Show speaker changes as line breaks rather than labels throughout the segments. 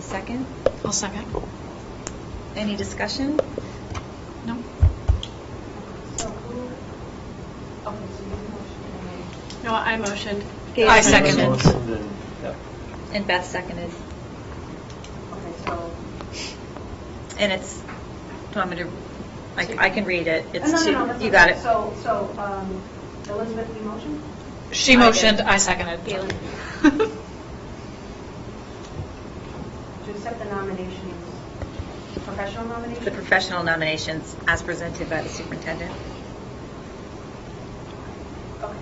Second?
I'll second.
Any discussion?
No? No, I motioned.
Gail
I
made the
seconded.
motion.
Motion and- yeah.
And Beth seconded.
Okay, so.
And it's, do you want me to, I I can read it. It's
No, no,
two,
no, that's
you
okay.
got it.
So, so um, Elizabeth, you motion?
She motioned, I seconded.
Gail.
To accept the nominations, professional nominations?
The professional nominations as presented by the superintendent.
Okay.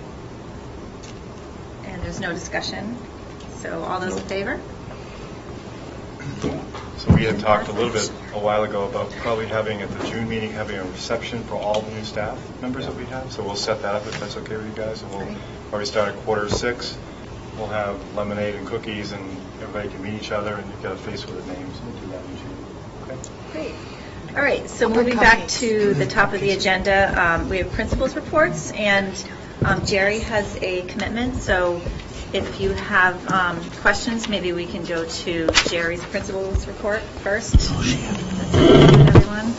And there's no discussion. So all those in favor?
So we had talked a little bit a while ago about probably having, at the June meeting, having a reception for all the new staff members that we have. So we'll set that up if that's okay with you guys. And we'll probably start at quarter to six. We'll have lemonade and cookies and everybody can meet each other and you've got a face with a name. So we'll do that in June. Okay?
Great. All right, so moving back to the top of the agenda, um, we have principals' reports, and um, Jerry has a commitment, so if you have um, questions, maybe we can go to Jerry's principals' report first. Everyone?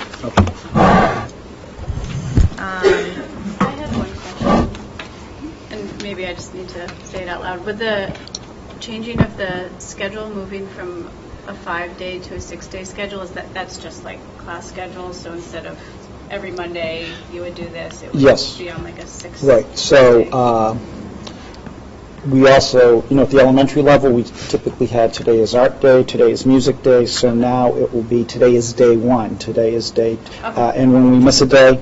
Um,
I have one question, and maybe I just need to say it out loud. With the changing of the schedule, moving from a five-day to a six-day schedule, is that, that's just like class schedules? So instead of every Monday, you would do this, it would
Yes.
be on like a six?
Right, so
day?
uh, we also, you know, at the elementary level, we typically had today is art day, today is music day, so now it will be today is day one, today is day, uh,
Okay.
and when we miss a day,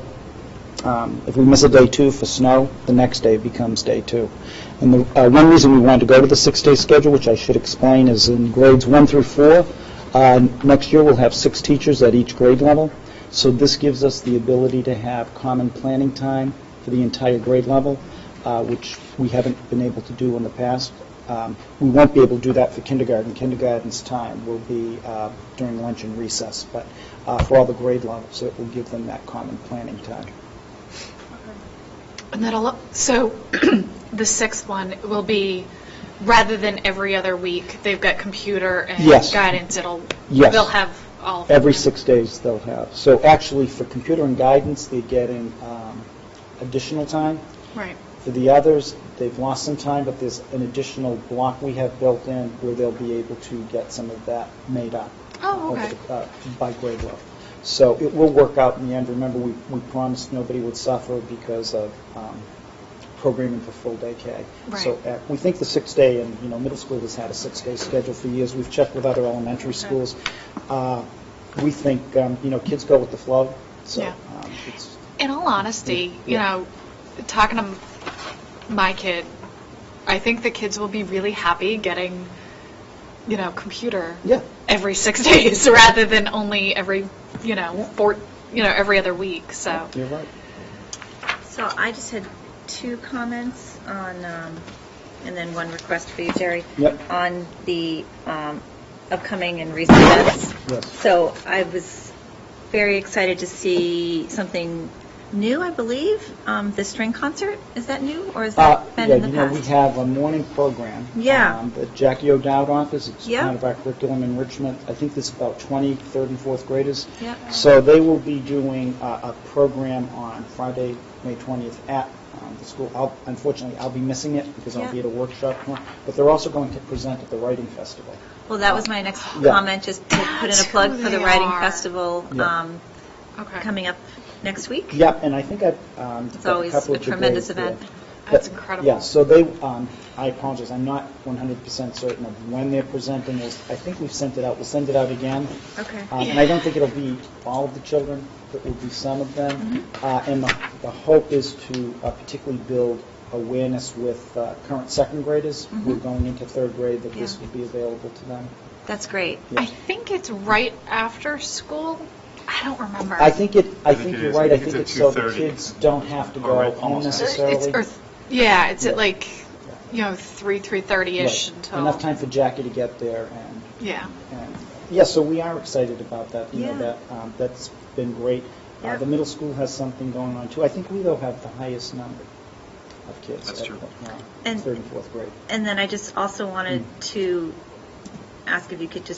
um, if we miss a day two for snow, the next day becomes day two. And the, uh, one reason we wanted to go to the six-day schedule, which I should explain, is in grades one through four, uh, next year we'll have six teachers at each grade level. So this gives us the ability to have common planning time for the entire grade level, uh, which we haven't been able to do in the past. Um, We won't be able to do that for kindergarten. Kindergarten's time will be uh, during lunch and recess, but uh, for all the grade levels, it will give them that common planning time.
And that'll, so the sixth one will be, rather than every other week, they've got computer and
Yes.
guidance, it'll,
Yes.
they'll have all. of
Every
them.
six days they'll have. So actually, for computer and guidance, they're getting um, additional time.
Right.
For the others, they've lost some time, but there's an additional block we have built in where they'll be able to get some of that made up.
Oh,
over
okay.
the- uh, By grade level. So it will work out in the end. Remember, we we promised nobody would suffer because of um, programming for full day K. So
Right.
uh, we think the six-day, and, you know, middle school has had a six-day schedule for years. We've checked with other elementary schools. Uh, We think, um, you know, kids go with the flow, so
Yeah.
um, it's...
In all honesty, you
Yeah.
know, talking to my kid, I think the kids will be really happy getting, you know, computer
Yeah.
every six days rather than only every, you know,
Yeah.
four, you know, every other week. So
You're right.
So I just had two comments on, um, and then one request for you, Jerry.
Yep.
On the um, upcoming and recent events.
Yes.
So I was very excited to see something new, I believe, um, the string concert. Is that new, or has
Uh,
that been
Yeah,
in the
you know, we
past?
have a morning program.
Yeah.
um, At Jackie O'Dowd office, it's
Yeah.
kind of our curriculum enrichment. I think there's about 20, third and fourth graders.
Yep.
So they will be doing uh, a program on Friday, May 20th at um, the school. I'll- Unfortunately, I'll be missing it because I'll be
Yeah.
at a workshop tomorrow, but they're also going to present at the Writing Festival.
Well, that was my next
Yeah.
comment, just to put in a
That's
plug
who
for the
they
Writing
are.
Festival
Yeah.
um,
okay.
coming up next week.
Yep, and I think I've um,
It's
got a
always
couple
a
of the
tremendous
grades there.
event.
That's
But,
incredible.
Yeah, so they, um, I apologize, I'm not 100% certain of when they're presenting this. I think we've sent it out, we'll send it out again.
Okay.
Um, And I don't think it'll be all of the children, but it will be some of them.
Mm-hmm.
Uh, And the the hope is to uh, particularly build awareness with uh, current second graders who are
Mhm.
going into third grade, that this
Yeah.
will be available to them.
That's great.
Yeah.
I think it's right after school. I don't remember. Uh,
I think it, I
I think
think
it
you're
is.
right,
I
I
think
think
it's
it's
at
so the
2:30.
kids don't have to
Or
go
right,
home
almost at
It's-
necessarily.
or th- yeah, it's at
Yeah.
like, you know, three, three thirty ish
Right.
until.
Enough time for Jackie to get there and
Yeah.
And, Yeah, so we are excited about that. You know,
Yeah.
that, um, that's been great. Uh,
Yeah.
The middle school has something going on, too. I think we, though, have the highest number of kids.
That's
at,
true.
uh,
And-
Third and fourth grade. Hmm.
And then I just also wanted to ask if you could just